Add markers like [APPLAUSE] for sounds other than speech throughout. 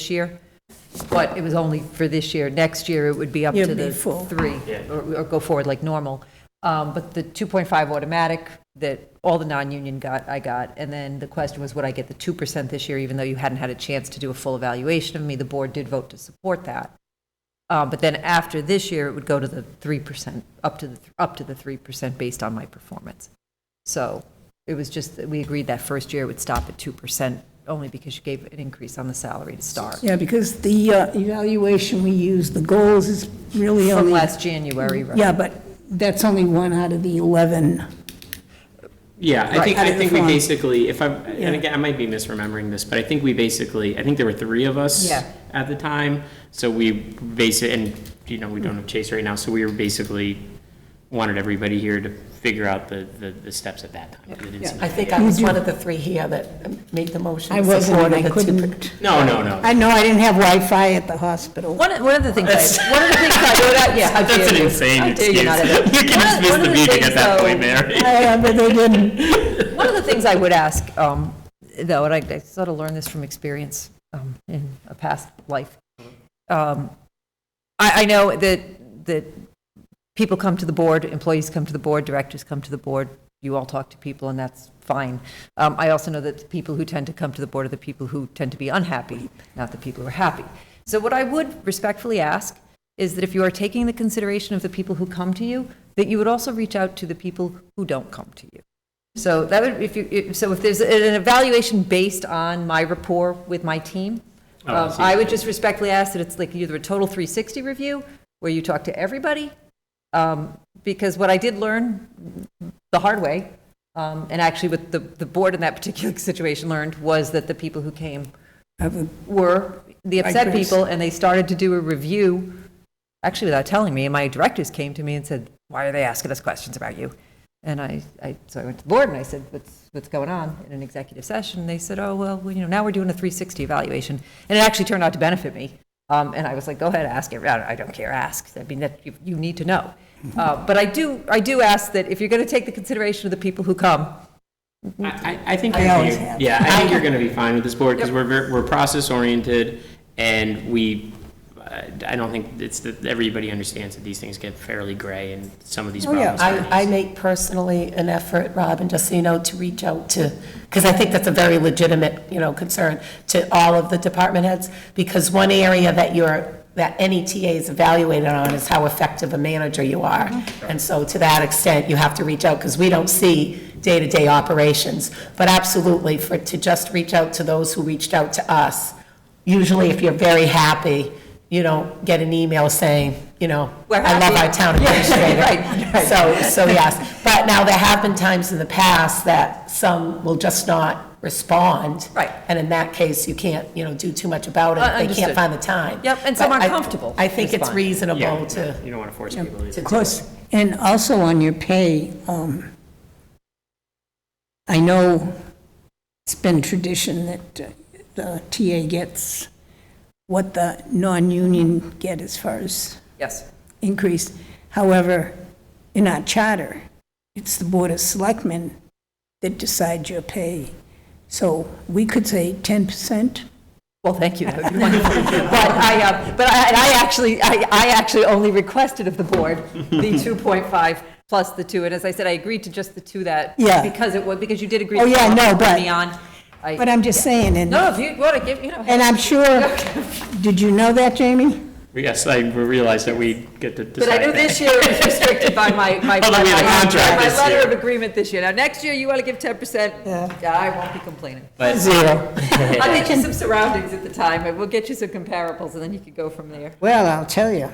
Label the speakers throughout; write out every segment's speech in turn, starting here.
Speaker 1: this year, but it was only for this year. Next year, it would be up
Speaker 2: Yeah,
Speaker 1: to the
Speaker 2: be full.
Speaker 1: three, or or go forward like normal. Um, But the 2.5 automatic that all the non-union got, I got. And then the question was, would I get the 2% this year, even though you hadn't had a chance to do a full evaluation of me? The board did vote to support that. Uh, But then after this year, it would go to the 3%, up to the, up to the 3% based on my performance. So it was just, that we agreed that first year it would stop at 2%, only because you gave an increase on the salary to start.
Speaker 2: Yeah, because the uh, evaluation we use, the goals is really
Speaker 1: From
Speaker 2: only.
Speaker 1: last January, right?
Speaker 2: Yeah, but that's only one out of the 11.
Speaker 3: Yeah, I
Speaker 1: Right.
Speaker 3: think,
Speaker 2: Out
Speaker 3: I
Speaker 2: of the
Speaker 3: think we
Speaker 2: form.
Speaker 3: basically, if I'm,
Speaker 2: Yeah.
Speaker 3: and again, I might be misremembering this, but I think we basically, I think there were three of us
Speaker 1: Yeah.
Speaker 3: at the time, so we base it, and, you know, we don't have Chase right now, so we were basically, wanted everybody here to figure out the, the, the steps at that time. 'cause it didn't seem
Speaker 4: I
Speaker 3: like-
Speaker 4: think I was one of the three here that made the motion.
Speaker 2: I wasn't, and
Speaker 4: supported
Speaker 2: I
Speaker 4: the two-
Speaker 2: couldn't.
Speaker 3: No, no, no.
Speaker 2: I know I didn't have Wi-Fi at the hospital.
Speaker 1: One, of- one of the things,
Speaker 3: That's-
Speaker 1: I- one of the things I wrote out, yeah, how
Speaker 3: [LAUGHS] That's
Speaker 1: dare
Speaker 3: an
Speaker 1: you.
Speaker 3: insane
Speaker 1: How dare
Speaker 3: excuse. [LAUGHS] You
Speaker 1: you not have it.
Speaker 3: can
Speaker 1: One of-
Speaker 3: dismiss
Speaker 1: one of
Speaker 3: the meeting
Speaker 1: things,
Speaker 3: at that
Speaker 1: though,
Speaker 3: point, Mary.
Speaker 2: I- But they didn't.
Speaker 1: One of the things I would ask, um, though, and I, I sort of learned this from experience um, in a past life. Um, I, I know that, that people come to the board, employees come to the board, directors come to the board, you all talk to people, and that's fine. Um, I also know that the people who tend to come to the board are the people who tend to be unhappy, not the people who are happy. So what I would respectfully ask is that if you are taking the consideration of the people who come to you, that you would also reach out to the people who don't come to you. So that would, if you, if- so if there's an evaluation based on my rapport with my team,
Speaker 3: Oh, I
Speaker 1: um,
Speaker 3: see.
Speaker 1: I would just respectfully ask that it's like either a total 360 review, where you talk to everybody, um, because what I did learn the hard way, um, and actually what the, the board in that particular [LAUGHS] situation learned, was that the people who came were the upset
Speaker 2: Migrants.
Speaker 1: people, and they started to do a review, actually without telling me, and my directors came to me and said, why are they asking us questions about you? And I, I, so I went to the board and I said, what's, what's going on in an executive session? And they said, oh, well, we- you know, now we're doing a 360 evaluation. And it actually turned out to benefit me. Um, and I was like, go ahead, ask it. I don't, I don't care, ask. I mean, that, you, you need to know. Uh, but I do, I do ask that if you're going to take the consideration of the people who come,
Speaker 3: I, I- I think,
Speaker 2: I
Speaker 3: you're
Speaker 2: always
Speaker 3: gonna-
Speaker 2: have.
Speaker 3: yeah, I think you're gonna be fine with this board, because we're, ver- we're process-oriented, and we, uh, I don't think it's that, everybody understands that these things get fairly gray, and some of these
Speaker 2: yeah.
Speaker 3: problems. are
Speaker 4: I, I make personally an effort, Robin, just so you know, to reach out to, because I think that's a very legitimate, you know, concern to all of the department heads, because one area that you're, that any TA is evaluated on is how effective a manager you are.
Speaker 1: Mm-hmm.
Speaker 4: And so to that extent, you have to reach out, because we don't see day-to-day operations. But absolutely, for, to just reach out to those who reached out to us, usually if you're very happy, you don't get an email saying, you know,
Speaker 1: We're
Speaker 4: I love
Speaker 1: happy."
Speaker 4: our
Speaker 1: [LAUGHS]
Speaker 4: town
Speaker 1: Yeah,
Speaker 4: administrator.
Speaker 1: right, right.
Speaker 4: So, so yes, but now there have been times in the past that some will just not respond.
Speaker 1: Right.
Speaker 4: And in that case, you can't, you know, do too much about
Speaker 1: Uh,
Speaker 4: it. They
Speaker 1: understood.
Speaker 4: can't find the time.
Speaker 1: Yep, and some
Speaker 4: But
Speaker 1: aren't
Speaker 4: I-
Speaker 1: comfortable
Speaker 4: I think it's
Speaker 1: responding.
Speaker 4: reasonable
Speaker 3: Yeah,
Speaker 4: to.
Speaker 3: You don't want to force people to.
Speaker 2: Of course, and also on your pay, um, I know it's been tradition that uh, the TA gets what the non-union get as far as
Speaker 1: yes,
Speaker 2: increase. However, in our charter, it's the Board of Selectmen that decide your pay. So we could say 10%.
Speaker 1: Well, thank you, that would be wonderful. But I, uh, but I, and I actually, I, I actually only requested of the board
Speaker 2: [LAUGHS]
Speaker 1: the 2.5 plus the two, and as I said, I agreed to just the two that.
Speaker 2: Yeah.
Speaker 1: Because it was, because you did agree.
Speaker 2: Oh,
Speaker 1: to
Speaker 2: yeah,
Speaker 1: bring
Speaker 2: no, but-
Speaker 1: Me on. I-
Speaker 2: But I'm just saying, and,
Speaker 1: No, if you want to give, you know.
Speaker 2: and
Speaker 1: [LAUGHS]
Speaker 2: I'm [LAUGHS] sure, did you know that, Jamie?
Speaker 3: Yes, I realized that we get to decide
Speaker 1: But I know
Speaker 3: that.
Speaker 1: this year is restricted by my, my.
Speaker 3: Although we had a
Speaker 1: my-
Speaker 3: contract
Speaker 1: my
Speaker 3: this
Speaker 1: letter
Speaker 3: year.
Speaker 1: of agreement this year. Now, next year, you want to give 10%? Yeah, I won't be
Speaker 2: [LAUGHS]
Speaker 1: complaining.
Speaker 2: Zero.
Speaker 1: I'll get you some surroundings at the time, and we'll get you some comparables, and then you could go from there.
Speaker 2: Well, I'll tell you,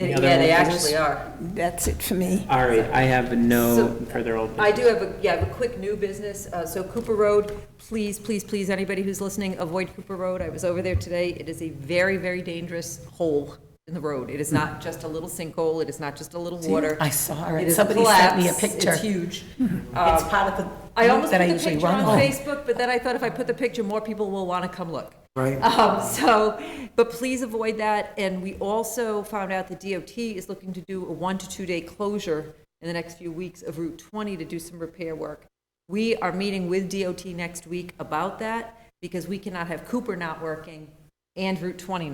Speaker 1: Yeah,
Speaker 3: other
Speaker 1: they
Speaker 3: old business?
Speaker 1: actually are.
Speaker 2: that's it for me.
Speaker 3: [LAUGHS] All right, I have no
Speaker 1: So-
Speaker 3: further old
Speaker 1: I do have a, yeah, I have a quick new business. Uh, So Cooper Road, please, please, please, anybody who's listening, avoid Cooper Road. I was over there today. It is a very, very dangerous hole in the road. It is not just a little sinkhole. It is not just a little water.
Speaker 4: I saw
Speaker 1: It
Speaker 4: it.
Speaker 1: is a
Speaker 4: Somebody sent me a
Speaker 1: collapse.
Speaker 4: picture. Mm-hmm.
Speaker 1: It's huge. Uh,
Speaker 4: It's part of the
Speaker 1: I
Speaker 4: route
Speaker 1: almost put
Speaker 4: that I
Speaker 1: the
Speaker 4: usually
Speaker 1: picture
Speaker 4: run
Speaker 1: on
Speaker 4: on.
Speaker 1: Facebook, but then I thought if I put the picture, more people will want to come look. Right. [LAUGHS] Um, so, but please avoid that. And we also found out the DOT is looking to do a one to two day closure in the next few weeks of Route 20 to do some repair work. We are meeting with DOT next week about that because we cannot have Cooper not working and Route 20